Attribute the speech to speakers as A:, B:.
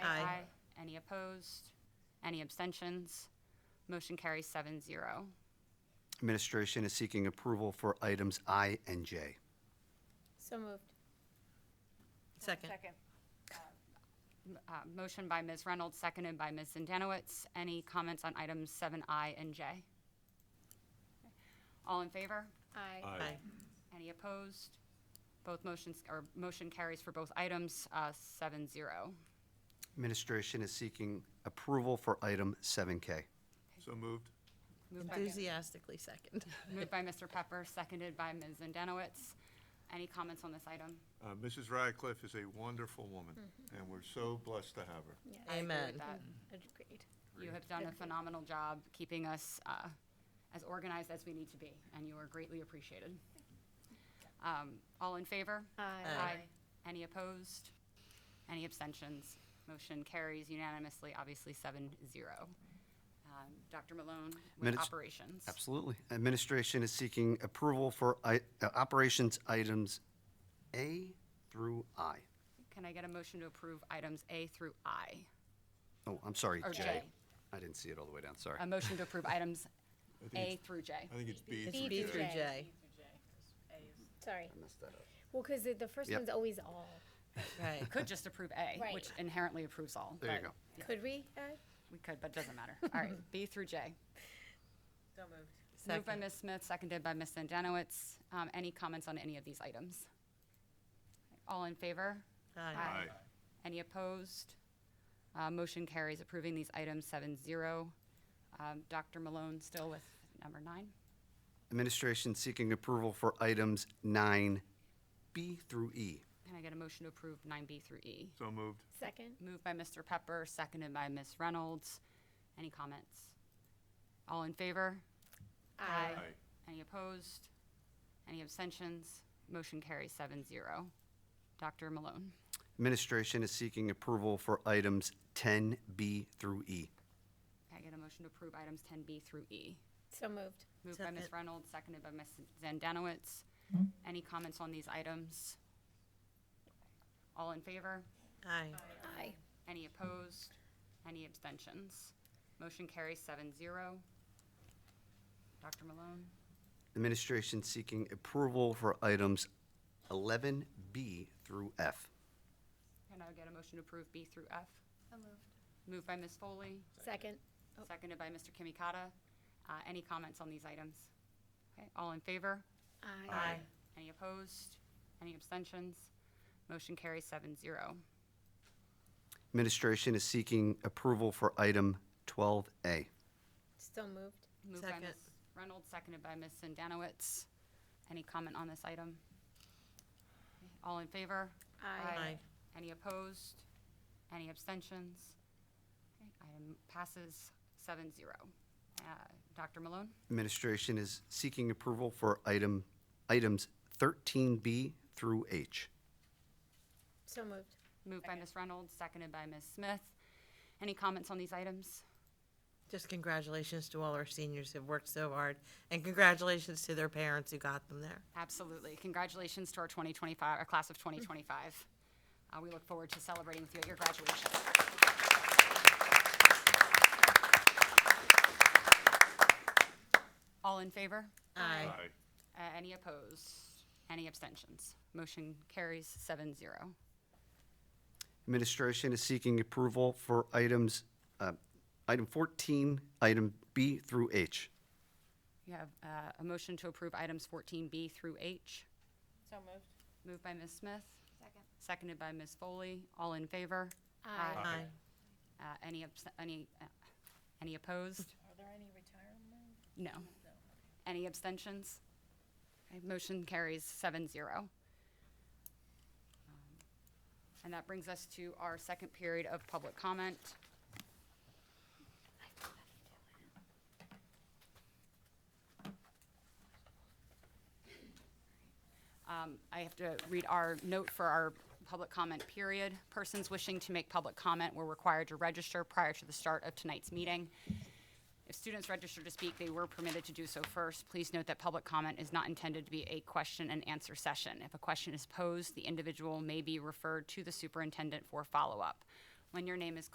A: opposed? Any abstentions? Motion carries seven zero.
B: Administration is seeking approval for items I and J.
C: So moved.
D: Second.
A: Uh, Motion by Ms. Reynolds, seconded by Ms. Zandanowits. Any comments on items seven I and J? All in favor?
C: Aye.
D: Aye.
A: Any opposed? Both motions, or motion carries for both items, uh, seven zero.
B: Administration is seeking approval for item 7K.
E: So moved.
A: Moved by-
D: Enthusiastically second.
A: Moved by Mr. Pepper, seconded by Ms. Zandanowits. Any comments on this item?
E: Uh, Mrs. Radcliffe is a wonderful woman, and we're so blessed to have her.
A: I agree with
D: Amen.
A: that.
C: Agreed.
A: You have done a phenomenal job keeping us uh, as organized as we need to be, and you are greatly appreciated. Um, All in favor?
C: Aye.
A: Any opposed? Any abstentions? Motion carries unanimously, obviously seven zero. Um, Dr. Malone with
B: Minutes-
A: operations.
B: Absolutely. Administration is seeking approval for i- uh, operations items A through I.
A: Can I get a motion to approve items A through I?
B: Oh, I'm sorry,
A: Or
B: J.
A: J. Um,
B: I didn't see it all the way down, sorry.
A: A motion to approve items A through J.
E: I think it's B.
D: It's
E: through
D: B
E: J.
D: through J.
C: Sorry.
B: Messed that up.
C: Well, because the first
B: Yep.
C: one's always all.
D: Right.
A: Could just approve A,
C: Right.
A: which inherently approves all.
B: There you
A: but
B: go.
C: Could we add?
A: We could, but it doesn't matter. All right, B through J. Moved by
D: Second.
A: Ms. Smith, seconded by Ms. Zandanowits. Um, Any comments on any of these items? All in favor?
D: Aye.
E: Aye.
A: Any opposed? Uh, Motion carries approving these items seven zero. Dr. Malone still with number nine.
B: Administration seeking approval for items 9B through E.
A: Can I get a motion to approve nine B through E?
E: So moved.
C: Second.
A: Moved by Mr. Pepper, seconded by Ms. Reynolds. Any comments? All in favor?
C: Aye.
E: Aye.
A: Any opposed? Any abstentions? Motion carries seven zero. Dr. Malone.
B: Administration is seeking approval for items 10B through E.
A: Can I get a motion to approve items ten B through E?
C: So moved.
A: Moved by Ms.
D: Second.
A: Reynolds, seconded by Ms. Zandanowits. Any comments on these items? All in favor?
D: Aye.
C: Aye.
A: Any opposed? Any abstentions? Motion carries seven zero. Dr. Malone?
B: Administration seeking approval for items 11B through F.
A: Can I get a motion to approve B through F? Moved by Ms. Foley,
C: Second.
D: Oh.
A: seconded by Mr. Kimikata. Uh, Any comments on these items? Okay, all in favor?
C: Aye.
A: Any opposed? Any abstentions? Motion carries seven zero.
B: Administration is seeking approval for item 12A.
C: Still moved.
A: Moved by
D: Second.
A: Ms. Reynolds, seconded by Ms. Zandanowits. Any comment on this item? All in favor?
D: Aye.
A: Any opposed? Any abstentions? Okay, Item passes seven zero. Dr. Malone?
B: Administration is seeking approval for item, items 13B through H.
C: So moved.
A: Moved by Ms. Reynolds, seconded by Ms. Smith. Any comments on these items?
D: Just congratulations to all our seniors who've worked so hard, and congratulations to their parents who got them there.
A: Absolutely. Congratulations to our 2025, our class of 2025. Uh, We look forward to celebrating with you at your graduation. All in favor?
D: Aye.
E: Aye.
A: Uh, Any opposed? Any abstentions? Motion carries seven zero.
B: Administration is seeking approval for items, uh, item 14, item B through H.
A: You have uh, a motion to approve items 14B through H.
C: So moved.
A: Moved by Ms. Smith. Second. Seconded by Ms. Foley. All in favor?
C: Aye.
D: Aye.
A: Uh, Any, abs- any, uh, any opposed?
F: Are there any retirement?
A: No. Any abstentions? Okay, Motion carries seven zero. Um, And that brings us to our second period of public comment. Um, I have to read our note for our public comment period. Persons wishing to make public comment were required to register prior to the start of tonight's meeting. If students registered to speak, they were permitted to do so first. Please note that public comment is not intended to be a question and answer session. If a question is posed, the individual may be referred to the superintendent for follow-up. When your name is